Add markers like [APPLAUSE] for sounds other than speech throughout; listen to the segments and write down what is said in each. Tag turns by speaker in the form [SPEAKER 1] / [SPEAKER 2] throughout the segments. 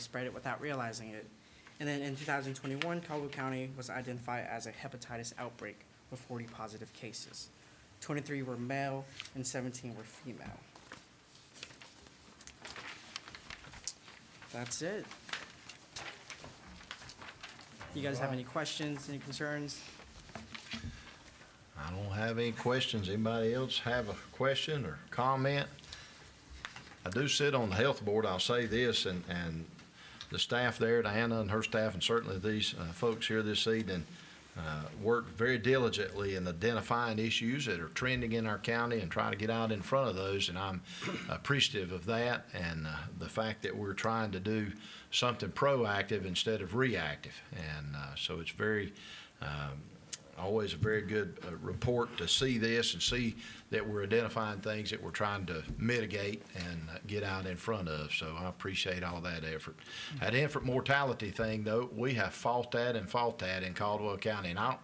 [SPEAKER 1] spread it without realizing it. And then in 2021, Caldwell County was identified as a hepatitis outbreak with 40 positive cases. 23 were male and 17 were female. That's it. You guys have any questions, any concerns?
[SPEAKER 2] I don't have any questions. Anybody else have a question or comment? I do sit on the health board, I'll say this, and, and the staff there, Diana and her staff, and certainly these uh, folks here this evening, uh, work very diligently in identifying issues that are trending in our county and try to get out in front of those, and I'm appreciative of that and uh, the fact that we're trying to do something proactive instead of reactive. And uh, so it's very, um, always a very good uh, report to see this and see that we're identifying things that we're trying to mitigate and uh, get out in front of. So I appreciate all that effort. That infant mortality thing, though, we have fought that and fought that in Caldwell County. And I don't,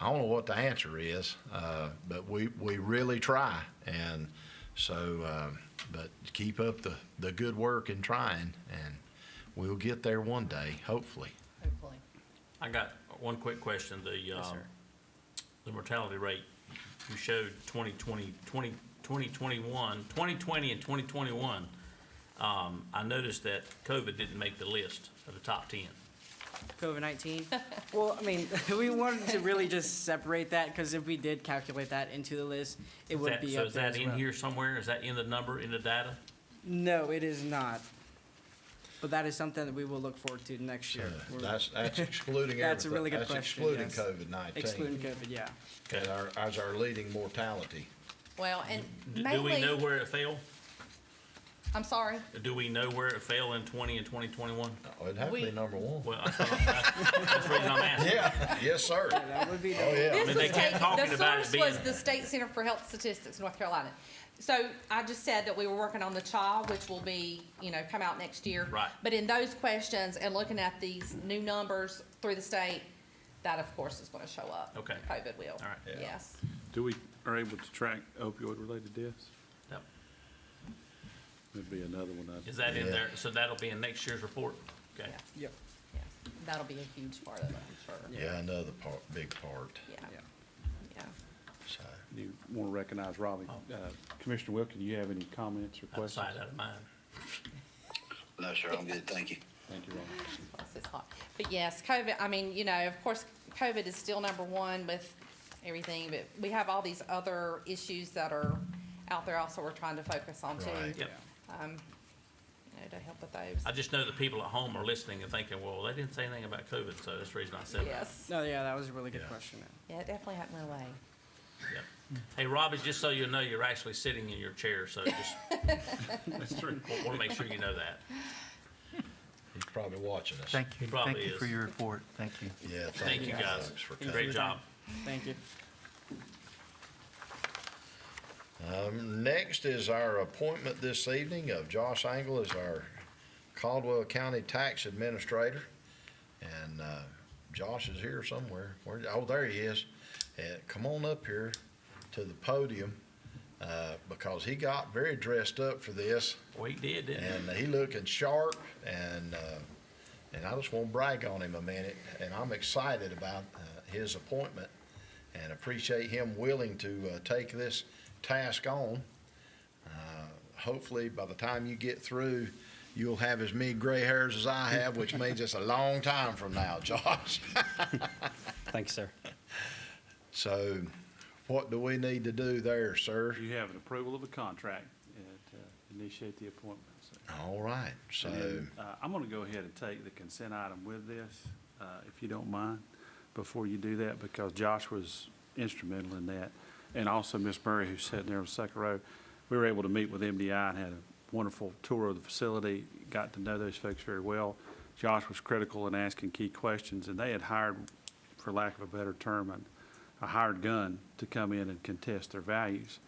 [SPEAKER 2] I don't know what the answer is, uh, but we, we really try. And so, um, but keep up the, the good work and trying, and we'll get there one day, hopefully.
[SPEAKER 3] hopefully.
[SPEAKER 4] I got one quick question. The, um,
[SPEAKER 1] sir.
[SPEAKER 4] the mortality rate, you showed 2020, 20 2021, 2020 and 2021. Um, I noticed that COVID didn't make the list of the top 10.
[SPEAKER 1] COVID-19? Well, I mean, [LAUGHS] we wanted to really just separate that because if we did calculate that into the list, it
[SPEAKER 4] Is
[SPEAKER 1] would
[SPEAKER 4] that-
[SPEAKER 1] be
[SPEAKER 4] So
[SPEAKER 1] up
[SPEAKER 4] is
[SPEAKER 1] there
[SPEAKER 4] that
[SPEAKER 1] as
[SPEAKER 4] in
[SPEAKER 1] well.
[SPEAKER 4] here somewhere? Is that in the number, in the data?
[SPEAKER 1] No, it is not. But that is something that we will look forward to next year. We're
[SPEAKER 2] Uh,
[SPEAKER 1] [LAUGHS]
[SPEAKER 2] That's, that's excluding everything.
[SPEAKER 1] That's a really good question,
[SPEAKER 2] That's
[SPEAKER 1] yes.
[SPEAKER 2] excluding COVID-19.
[SPEAKER 1] Excluding COVID, yeah.
[SPEAKER 2] As our, as our leading mortality.
[SPEAKER 3] Well, and
[SPEAKER 4] D- Do we
[SPEAKER 3] mainly,
[SPEAKER 4] know where it fell?
[SPEAKER 3] I'm sorry,
[SPEAKER 4] Do we know where it fell in 20 and 2021?
[SPEAKER 2] Oh, It'd have to be
[SPEAKER 3] We-
[SPEAKER 2] number one.
[SPEAKER 4] Well, I thought- that's the reason
[SPEAKER 3] [LAUGHS]
[SPEAKER 4] I'm asking.
[SPEAKER 2] Yeah, yes,
[SPEAKER 1] [LAUGHS]
[SPEAKER 2] sir.
[SPEAKER 1] That would be the-
[SPEAKER 2] Oh, yeah.
[SPEAKER 3] this
[SPEAKER 4] mean,
[SPEAKER 3] was
[SPEAKER 4] they kept
[SPEAKER 3] taken,
[SPEAKER 4] talking
[SPEAKER 3] the
[SPEAKER 4] about it
[SPEAKER 3] source was
[SPEAKER 4] being-
[SPEAKER 3] the State Center for Health Statistics, North Carolina. So I just said that we were working on the CHA, which will be, you know, come out next year.
[SPEAKER 4] Right.
[SPEAKER 3] But in those questions and looking at these new numbers through the state, that of course is gonna show up.
[SPEAKER 4] Okay.
[SPEAKER 3] COVID will.
[SPEAKER 4] All right.
[SPEAKER 2] Yeah.
[SPEAKER 3] Yes.
[SPEAKER 5] Do we, are able to track opioid-related deaths?
[SPEAKER 4] Yep.
[SPEAKER 5] Would be another one I'd.
[SPEAKER 4] Is that in
[SPEAKER 2] Yeah.
[SPEAKER 4] there? So that'll be in next year's report? Okay.
[SPEAKER 3] Yes,
[SPEAKER 1] Yep,
[SPEAKER 3] yes. That'll be a huge part of it, I'm sure.
[SPEAKER 2] Yeah, another part, big part,
[SPEAKER 3] Yeah,
[SPEAKER 1] yeah.
[SPEAKER 3] yeah.
[SPEAKER 2] so.
[SPEAKER 5] You want to recognize Robbie. Uh, Commissioner Wilkie, do you have any comments or questions?
[SPEAKER 4] Oh. Outside, out of mind.
[SPEAKER 6] No, sir, I'm good, thank you.
[SPEAKER 5] Thank you, Robbie.
[SPEAKER 3] Plus, it's hot. But yes, COVID, I mean, you know, of course, COVID is still number one with everything, but we have all these other issues that are out there also we're trying to focus on too.
[SPEAKER 2] Right.
[SPEAKER 3] You
[SPEAKER 4] Yep.
[SPEAKER 3] know, to help with those.
[SPEAKER 4] I just know the people at home are listening and thinking, well, they didn't say anything about COVID, so that's the reason I said that.
[SPEAKER 3] Yes,
[SPEAKER 1] No, yeah, that was a really good
[SPEAKER 2] Yeah.
[SPEAKER 1] question. man.
[SPEAKER 3] yeah, it definitely happened away.
[SPEAKER 4] Yep. Hey, Robbie, just so you know, you're actually sitting in your chair, so just
[SPEAKER 5] That's true.
[SPEAKER 4] want to make sure you know that.
[SPEAKER 2] He's probably watching us.
[SPEAKER 7] Thank you.
[SPEAKER 4] Probably
[SPEAKER 7] Thank you for
[SPEAKER 4] is.
[SPEAKER 7] your report. Thank you.
[SPEAKER 2] Yeah,
[SPEAKER 4] Thank you, guys.
[SPEAKER 2] folks, for
[SPEAKER 4] Great
[SPEAKER 2] coming.
[SPEAKER 4] job.
[SPEAKER 1] Thank you.
[SPEAKER 2] Um, next is our appointment this evening of Josh Angle as our Caldwell County Tax Administrator. And, uh, Josh is here somewhere. Where, oh, there he is. Uh, come on up here to the podium, uh, because he got very dressed up for this.
[SPEAKER 4] We did, didn't we?
[SPEAKER 2] and he looking sharp and uh, and I just want to brag on him a minute and I'm excited about uh, his appointment and appreciate him willing to uh, take this task on. Uh, hopefully by the time you get through you'll have as many gray hairs as I have which means it's a long time from now [LAUGHS] Josh.
[SPEAKER 8] Thanks, sir.
[SPEAKER 2] so what do we need to do there sir?
[SPEAKER 5] You have an approval of a contract and, uh, initiate the appointment. so.
[SPEAKER 2] All right. So
[SPEAKER 5] And then, uh, I'm going to go ahead and take the consent item with this, uh, if you don't mind, before you do that, because Josh was instrumental in that. And also Ms. Murray, who's sitting there on the second row. We were able to meet with MDI and had a wonderful tour of the facility, got to know those folks very well. Josh was critical in asking key questions, and they had hired, for lack of a better term, an- a hired gun to come in and contest their values.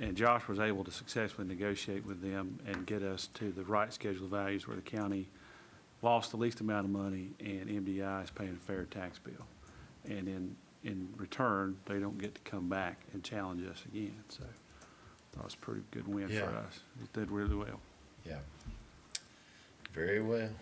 [SPEAKER 5] And Josh was able to successfully negotiate with them and get us to the right schedule of values where the county lost the least amount of money and MDI is paying a fair tax bill. And in, in return, they don't get to come back and challenge us again. So that was a pretty good win for
[SPEAKER 2] Yeah.
[SPEAKER 5] us. It did really well.
[SPEAKER 2] yeah. Very well.